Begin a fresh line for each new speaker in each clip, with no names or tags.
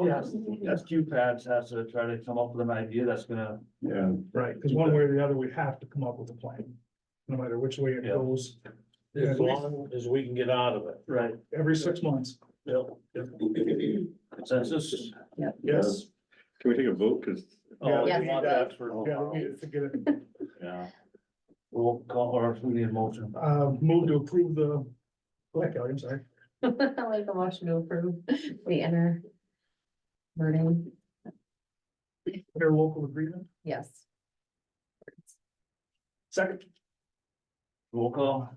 Yes, that's QPADS has to try to come up with an idea that's gonna,
Yeah,
Right, because one way or the other, we have to come up with a plan, no matter which way it
Yeah.
goes,
As long as we can get out of it.
right,
every six months.
consensus.
Yes.
can we take a vote? Cause,
Oh,
Yeah.
we need that for-
Yeah, we need to get it,
yeah,
We'll call, or if we need a motion.
uh, move to approve the, like, I'm sorry,
I'll make a motion to approve the inner. Birding,
interlocal agreement,
yes.
second,
Roll call.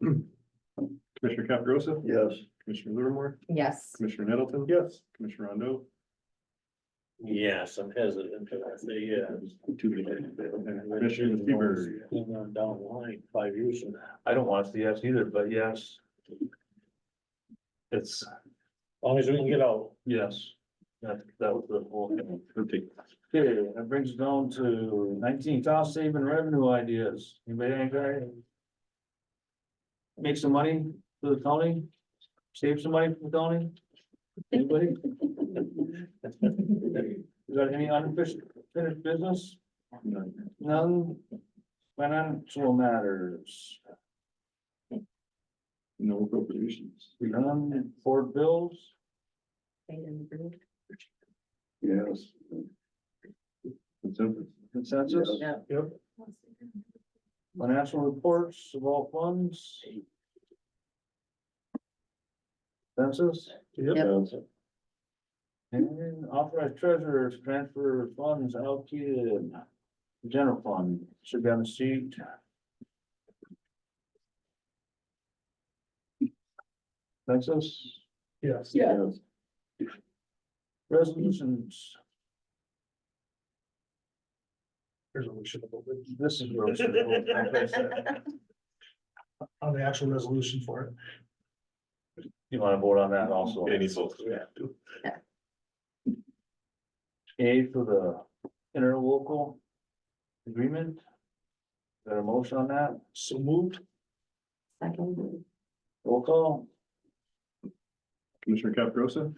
Commissioner Caprosa?
Yes.
Commissioner Livermore?
Yes,
Commissioner Nettleton?
yes.
Commissioner Rondo?
Yes, I'm hesitant to say, yeah.
Two people. Commissioner Seaver,
Down the line, five years from now,
I don't want to see yes either, but yes. It's,
as long as we can get out.
yes, that, that was the whole thing.
I'll take
Okay, that brings us down to nineteen, cost saving revenue ideas. Anybody have any? Make some money for the county? Save some money for the county? Anybody? You got any unfinished finished business?
none.
None? Financial matters,
No appropriations.
none for bills?
they didn't approve.
Yes. Consensus.
Consensus?
Yeah.
Yep.
Financial reports of all funds? Consensus?
Yep.
And authorized treasurer's transfer funds allocated general fund, should be on the sheet. Consensus?
Yes.
Yes.
Resolutions,
Here's what we should have voted,
this is where we should go.
on the actual resolution for it,
You wanna vote on that also?
Any votes?
A for the interlocal agreement. Is there a motion on that?
so moved,
Second,
Roll call?
Commissioner Caprosa?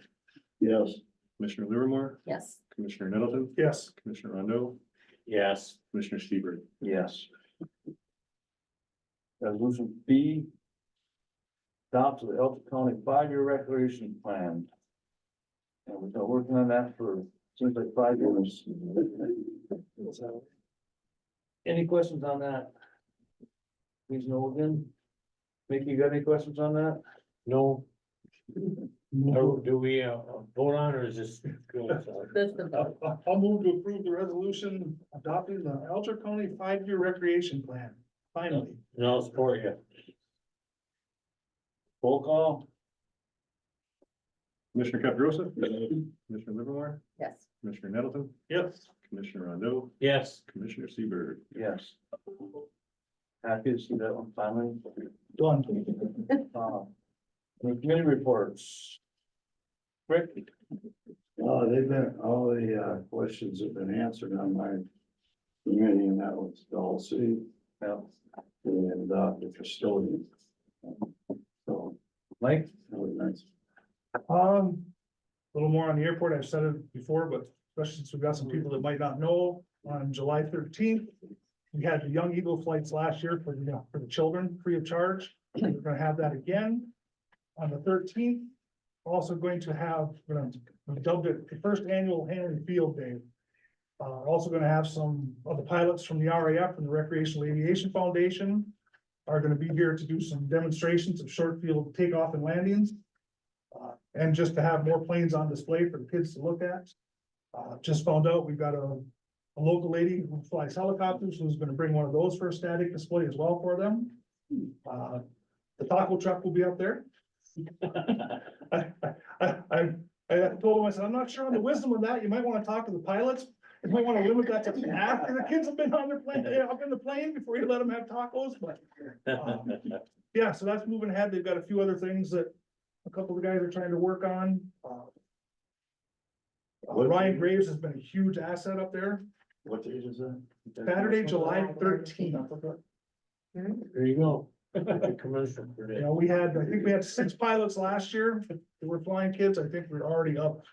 Yes.
Commissioner Livermore?
yes,
Commissioner Nettleton?
yes,
Commissioner Rondo?
Yes,
Commissioner Seaver?
Yes. Resolution B. Adopt the Elton County five-year recreation plan. And we've been working on that for, seems like five years. Any questions on that? Please know again. Mickey, you got any questions on that?
no,
I'll,
or do we uh, vote on or is this?
this is the vote.
I'll- I'll move to approve the resolution adopting the Alger County five-year recreation plan, finally.
No, support you.
Roll call?
Commissioner Caprosa? Commissioner Livermore?
yes,
Commissioner Nettleton?
Yes.
Commissioner Rondo?
Yes,
Commissioner Seaver?
Yes. Happy to see that one finally.
Done.
Uh, the Committee reports. Rick?
No, Uh, they've been, all the uh questions have been answered on my committee, and that was Dulce
Yeah.
and uh the custodian. So
Mike?
that was nice.
Um, a little more on the airport, I've said it before, but especially since we've got some people that might not know, on July thirteenth. We had the Young Eagle flights last year for, you know, for the children, free of charge, we're gonna have that again. On the thirteenth, also going to have, we're gonna- we dubbed it the first annual Henry Field Day. Uh, also gonna have some of the pilots from the RAF and the Recreational Aviation Foundation. Are gonna be here to do some demonstrations of short field takeoff and landings. Uh, and just to have more planes on display for the kids to look at. Uh, just found out, we've got a, a local lady who flies helicopters, who's gonna bring one of those for a static display as well for them. Uh, the taco truck will be up there. I, I, I, I told him, I said, I'm not sure on the wisdom of that, you might wanna talk to the pilots. You might wanna limit that to after the kids have been on their plane, eh, up in the plane before you let them have tacos, but. um, Yeah, so that's moving ahead, they've got a few other things that a couple of guys are trying to work on. uh, uh, Ryan Graves has been a huge asset up there.
What date is that?
Saturday, July thirteenth.
there you go. Commercial for
You
that.
know, we had, I think we had six pilots last year that were flying kids. I think we're already up